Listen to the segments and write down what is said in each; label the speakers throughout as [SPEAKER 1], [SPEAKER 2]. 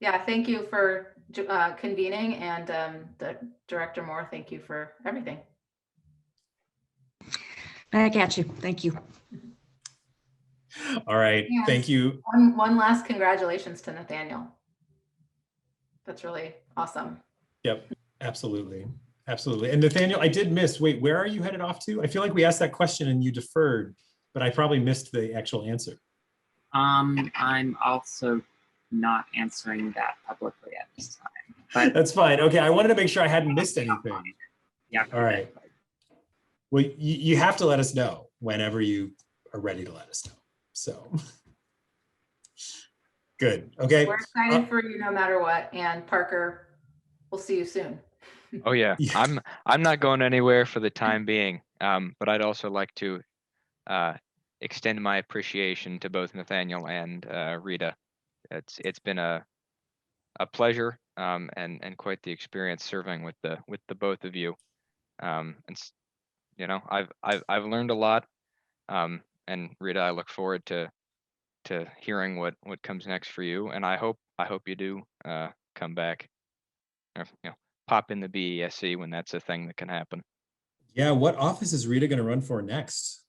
[SPEAKER 1] Yeah, thank you for ju- uh, convening and um, the Director Moore, thank you for everything.
[SPEAKER 2] Back at you. Thank you.
[SPEAKER 3] All right,
[SPEAKER 1] Yes.
[SPEAKER 3] thank you.
[SPEAKER 1] One, one last congratulations to Nathaniel. That's really awesome.
[SPEAKER 3] Absolutely. Absolutely. And Nathaniel, I did miss, wait, where are you headed off to? I feel like we asked that question and you deferred, but I probably missed the actual answer.
[SPEAKER 4] Um, I'm also not answering that publicly at this time, but
[SPEAKER 3] That's fine. Okay, I wanted to make sure I hadn't missed anything.
[SPEAKER 4] yeah.
[SPEAKER 3] All right. Well, you, you have to let us know whenever you are ready to let us know. So. Good. Okay.
[SPEAKER 1] We're excited for you no matter what. And Parker, we'll see you soon.
[SPEAKER 5] Oh yeah,
[SPEAKER 3] Yeah.
[SPEAKER 5] I'm I'm not going anywhere for the time being. Um, but I'd also like to uh, extend my appreciation to both Nathaniel and uh, Rita. It's it's been a a pleasure um, and and quite the experience serving with the with the both of you. Um, and s- you know, I've I've I've learned a lot. Um, and Rita, I look forward to to hearing what what comes next for you. And I hope I hope you do uh, come back. Or, you know, pop in the BESC E when that's a thing that can happen.
[SPEAKER 3] Yeah, what office is Rita going to run for next?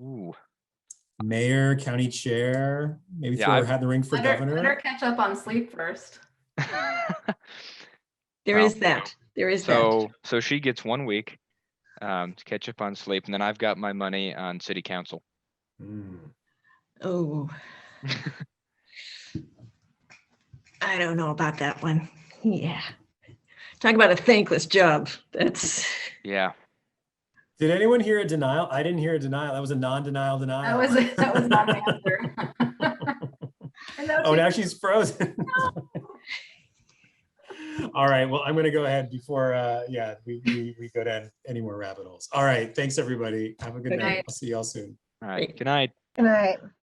[SPEAKER 5] Ooh,
[SPEAKER 3] Mayor, county chair, maybe
[SPEAKER 5] Yeah,
[SPEAKER 3] throw her
[SPEAKER 5] I've-
[SPEAKER 3] hat in the ring for
[SPEAKER 1] Let her, let her
[SPEAKER 3] governor?
[SPEAKER 1] catch up on sleep first.
[SPEAKER 2] There
[SPEAKER 5] Well,
[SPEAKER 2] is that. There is that.
[SPEAKER 5] so so she gets one week um, to catch up on sleep, and then I've got my money on city council.
[SPEAKER 3] Hmm.
[SPEAKER 2] Oh. I don't know about that one. Yeah. Talk about a thankless job. That's,
[SPEAKER 5] Yeah,
[SPEAKER 3] Did anyone hear a denial? I didn't hear a denial. That was a non-denial
[SPEAKER 1] That
[SPEAKER 3] denial.
[SPEAKER 1] was, that was not an answer. And that was
[SPEAKER 3] Oh,
[SPEAKER 1] it.
[SPEAKER 3] now she's frozen. All right, well, I'm gonna go ahead before, uh, yeah, we, we, we go down any more rabbit holes. All right, thanks, everybody. Have a good
[SPEAKER 2] Good
[SPEAKER 3] night.
[SPEAKER 1] night.
[SPEAKER 3] I'll see y'all soon.
[SPEAKER 5] all right,
[SPEAKER 2] Great.
[SPEAKER 5] good night.
[SPEAKER 6] Good night.